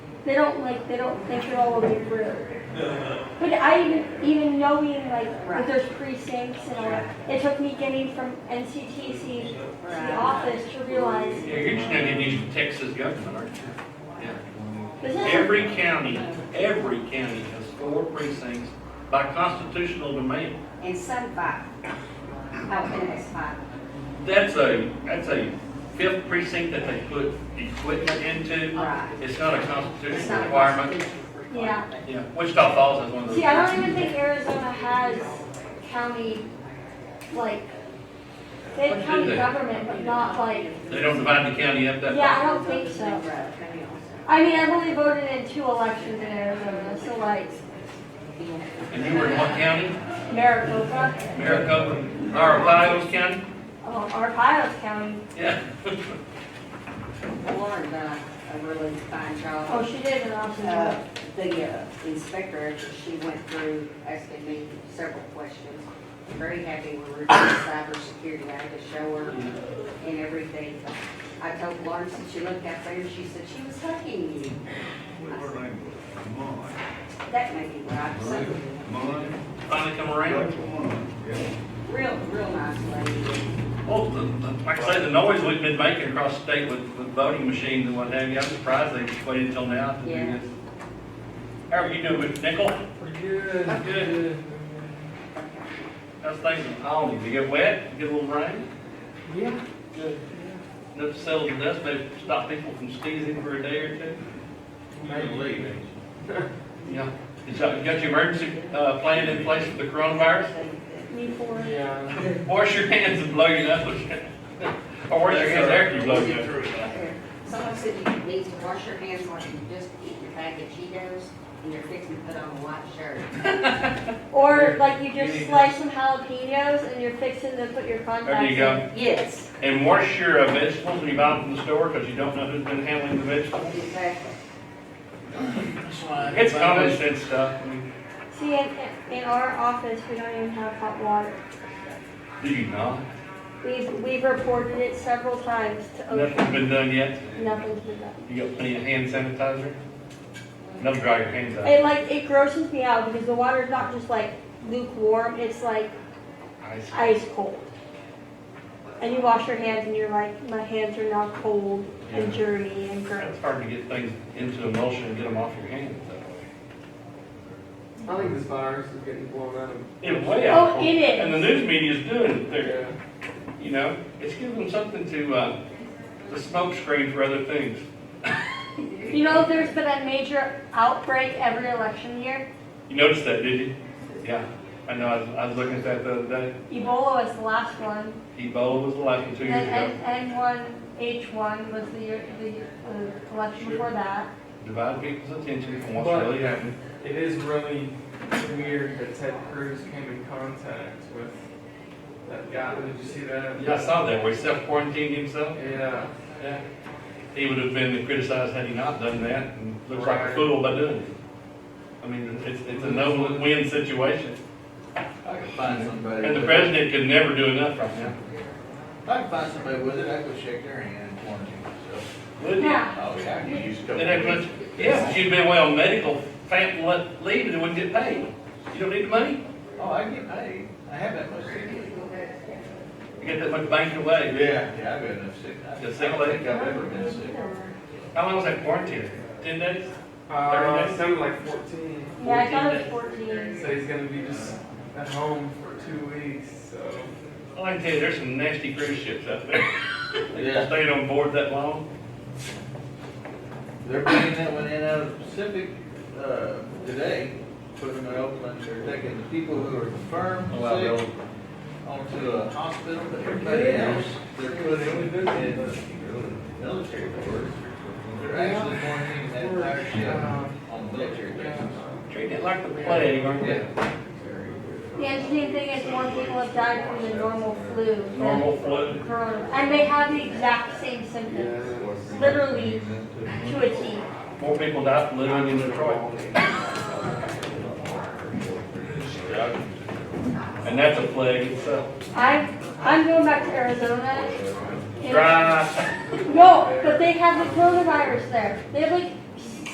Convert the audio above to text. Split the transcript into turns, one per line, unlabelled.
They don't like, they don't think it all the way through. But I even, even knowing like that there's precincts and all that, it took me getting from NCTC to the office to realize
Yeah, You're studying these Texas government, aren't you? Yeah.
this is,
Every county, every county has four precincts by constitutional demand.
And some five. Oh, and it's five.
That's a, that's a fifth precinct that they put equipment into.
Right.
It's not a
It's
constitutional
not a
requirement.
constitutional requirement.
yeah.
Yeah, Wichita Falls has one of those.
See, I don't even think Arizona has county, like, they
What do
have county
they?
government, but not like,
They don't divide the county up that.
yeah, I don't think so. I mean, I've only voted in two elections in Arizona, so like
And you were in what county?
Maricopa,
Maricopa, or Lyles County?
oh, or Piles County.
Yeah.
Lauren done uh, a really fine
Oh,
job.
she did an awesome job.
Uh, The uh, inspector, she went through, asking me several questions. I'm Very happy we were doing the cybersecurity, I had to show her and everything. I told Lauren, since she looked out there, she said she was hugging you. That may be right, something.
Finally come around.
Real, real nice lady.
Well, the- the- like I say, the noise we've been making across the state with, with voting machines and what have you, I'm surprised they just waited until now to do
Yeah.
this. How are you doing with nickel?
Good,
good. How's things in Alney? Did it get wet? Get a little rain?
Yeah.
Good. Enough to settle the dust, maybe stop people from sneezing for a day or two? Yeah. You got you got your emergency, uh, plan in place for the coronavirus?
Me for it.
Yeah.
Wash your hands and blow your nose. Or wash your hands after you blow your nose.
Someone said you need to wash your hands like you just eaten a bag of Cheetos and you're fixing to put on a white shirt.
Or like you just slice some jalapenos and you're fixing to put your contacts.
There you go.
Yes.
And wash your uh, vegetables when you buy them from the store, because you don't know who's been handling the vegetables.
Exactly.
It's common sense stuff. I mean,
in. See, in, in our office, we don't even have hot water.
Do you not?
We've, we've reported it several times to
Nothing's
OSHA.
been done yet.
Nothing's been done.
You got plenty of hand sanitizer? Don't dry your hands out.
It like, it grosses me out because the water's not just like lukewarm, it's like
Ice.
ice cold. And you wash your hands and you're like, my hands are now cold and dirty and gross.
It's hard to get things into emulsion and get them off your hands that way.
I think this virus is getting blown out of.
It's way out.
Oh, it is.
And the news media's doing it there.
Yeah.
You know, it's giving them something to, uh, the smoke screen for other things.
You know, there's been a major outbreak every election year.
You noticed that, did you? Yeah, I know, I was, I was looking at that the other day.
Ebola was the last one.
Ebola was the last one two years ago.
Then N one H one was the year, the uh, election before that.
Divide people's attention from what's
But-
really happening.
It is really weird that Ted Cruz came in contact with that guy. Did you see that?
Yeah, I saw that, where he self-quarantined himself.
Yeah.
Yeah. He would have been criticized had he not done that, and looks like a fool by doing it. I mean, it's, it's a no-win situation.
I could find somebody.
And the
with-
president could never do enough right now.
I could find somebody with it, I could shake their hand and quarantine myself.
Would he?
Yeah.
Oh, yeah, I could use a couple.
Then that
of
much,
weeks.
yeah, but you'd been away on medical, fam, le- leave, and it wouldn't get paid. You don't need the money?
Oh, I get paid, I have that much sick. leave.
You get that much banked away.
Yeah, yeah, I've been enough sick. I
The
I
sick
don't
leave?
think I've ever been sick.
How long was that quarantine? Ten days?
Uh, it sounded like 14.
Yeah, I thought it was fourteen.
So he's gonna be just at home for two weeks. So
All I can tell you, there's some nasty cruise ships out there.
Yeah.
Staying on board that long.
They're bringing that one in out of the Pacific, uh, today, putting them in Oakland, they're taking the people who are confirmed sick onto a hospital, but everybody else, they're putting in the military board. They're actually quarantining that entire ship on military bases.
Treating it like the plague, aren't they?
The interesting thing is more people have died from the normal flu than
Normal flu.
corona. And they have the exact same symptoms, literally to a T.
More people die from living in Detroit. And that's a plague itself.
I'm, I'm going back to Arizona.
Dry.
No, but they have the coronavirus there. They have like